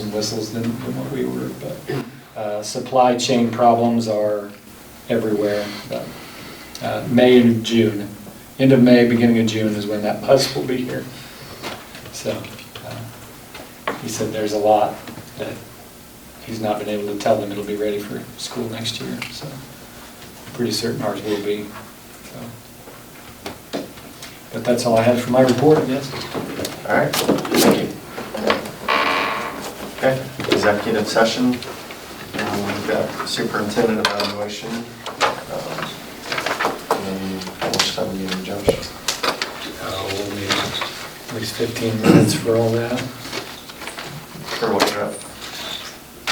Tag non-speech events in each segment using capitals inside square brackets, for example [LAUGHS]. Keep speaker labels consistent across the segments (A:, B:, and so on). A: and whistles than, than what we were, but, uh, supply chain problems are everywhere, but, uh, May and June, end of May, beginning of June is when that bus will be here. So, uh, he said there's a lot that he's not been able to tell them it'll be ready for school next year, so, pretty certain ours will be, so. But that's all I had for my report, yes?
B: All right, thank you. Okay, executive session. Um, We've got superintendent evaluation. um, And how much time do you need, Josh?
A: Uh, we'll need at least 15 minutes for all that,
B: For what you're up?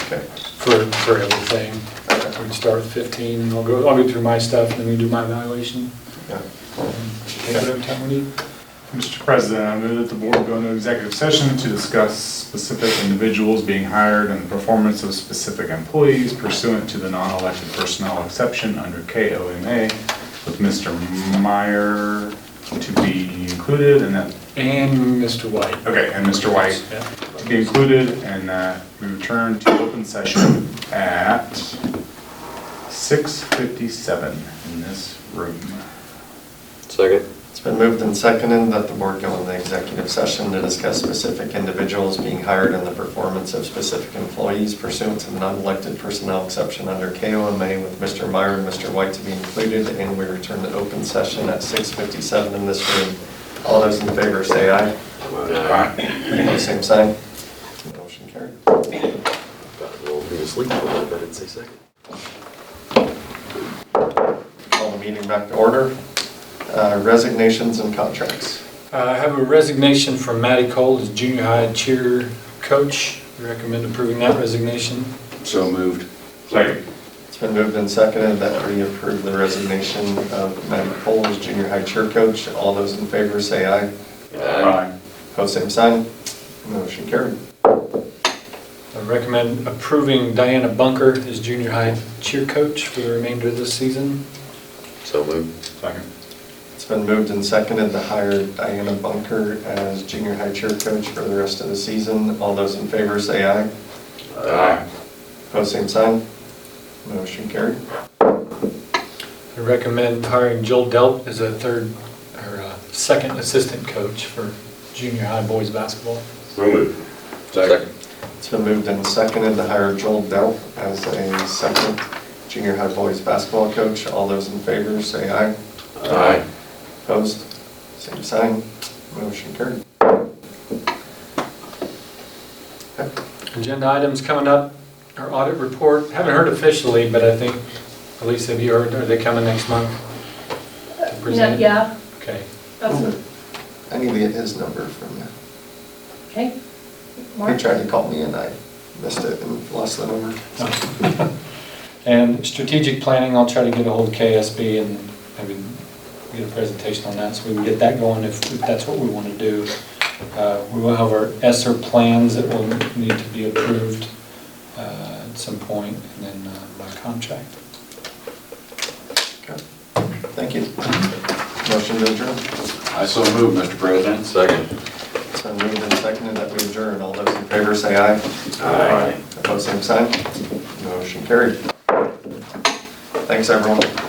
B: Okay,
A: for, for everything. We
B: okay,
A: can start with 15, I'll go, I'll go through my stuff, and then we do my evaluation.
B: yeah.
A: and Take whatever time we need.
C: Mr. President, I move that the board go into executive session to discuss specific individuals being hired and the performance of specific employees pursuant to the non-elected personnel exception under KOMA with Mr. Meyer to be included and that,
A: And Mr. White.
C: okay, and Mr. White
A: Yeah.
C: to be included and that we return to open session at 6:57 in this room.
D: Second.
B: It's been moved and seconded that the board go into executive session to discuss specific individuals being hired and the performance of specific employees pursuant to the non-elected personnel exception under KOMA with Mr. Meyer and Mr. White to be included, and we return to open session at 6:57 in this room. All those in favor say aye. Opposed, Same sign. Motion carried.
D: We'll be asleep for a little bit in six seconds.
B: Call the meeting back to order. Uh, Resignations and contracts.
A: Uh, I have a resignation from Matty Cole as junior high cheer coach. Recommend approving that resignation.
D: So moved.
C: Second.
B: It's been moved and seconded that we approve the resignation of Matt Cole as junior high cheer coach. All those in favor say aye.
C: Aye.
B: Post same sign. Motion carried.
A: I recommend approving Diana Bunker as junior high cheer coach for the remainder of this season.
D: So moved.
C: Second.
B: It's been moved and seconded to hire Diana Bunker as junior high cheer coach for the rest of the season. All those in favor say aye.
D: Aye.
B: Post same sign. Motion carried.
A: I recommend hiring Joel Delp as a third, or a second assistant coach for junior high boys basketball.
D: So moved. Second.
B: It's been moved and seconded to hire Joel Delp as a second junior high boys basketball coach. All those in favor say aye.
D: Aye.
B: Opposed? Same sign. Motion carried.
A: Agenda items coming up, our audit report, haven't heard officially, but I think, Elisa, have you heard, are they coming next month? to
E: No,
A: present?
E: Yeah,
A: Okay.
E: that's,
B: I need to get his number from you.
E: okay.
B: He
E: Mark?
B: tried to call me and I missed it and lost the number.
A: [LAUGHS] And strategic planning, I'll try to get a hold of KSB and maybe get a presentation on that, so we can get that going if if that's what we want to do. Uh, We will have our ESER E plans that will need to be approved uh, at some point, and then uh, by contract.
B: Okay. Thank you. Motion to adjourn.
F: I so move, Mr. President.
D: Second.
B: It's been moved and seconded that we adjourn. All those in favor say aye.
D: Aye.
B: Opposed, same sign. Motion carried. Thanks, everyone.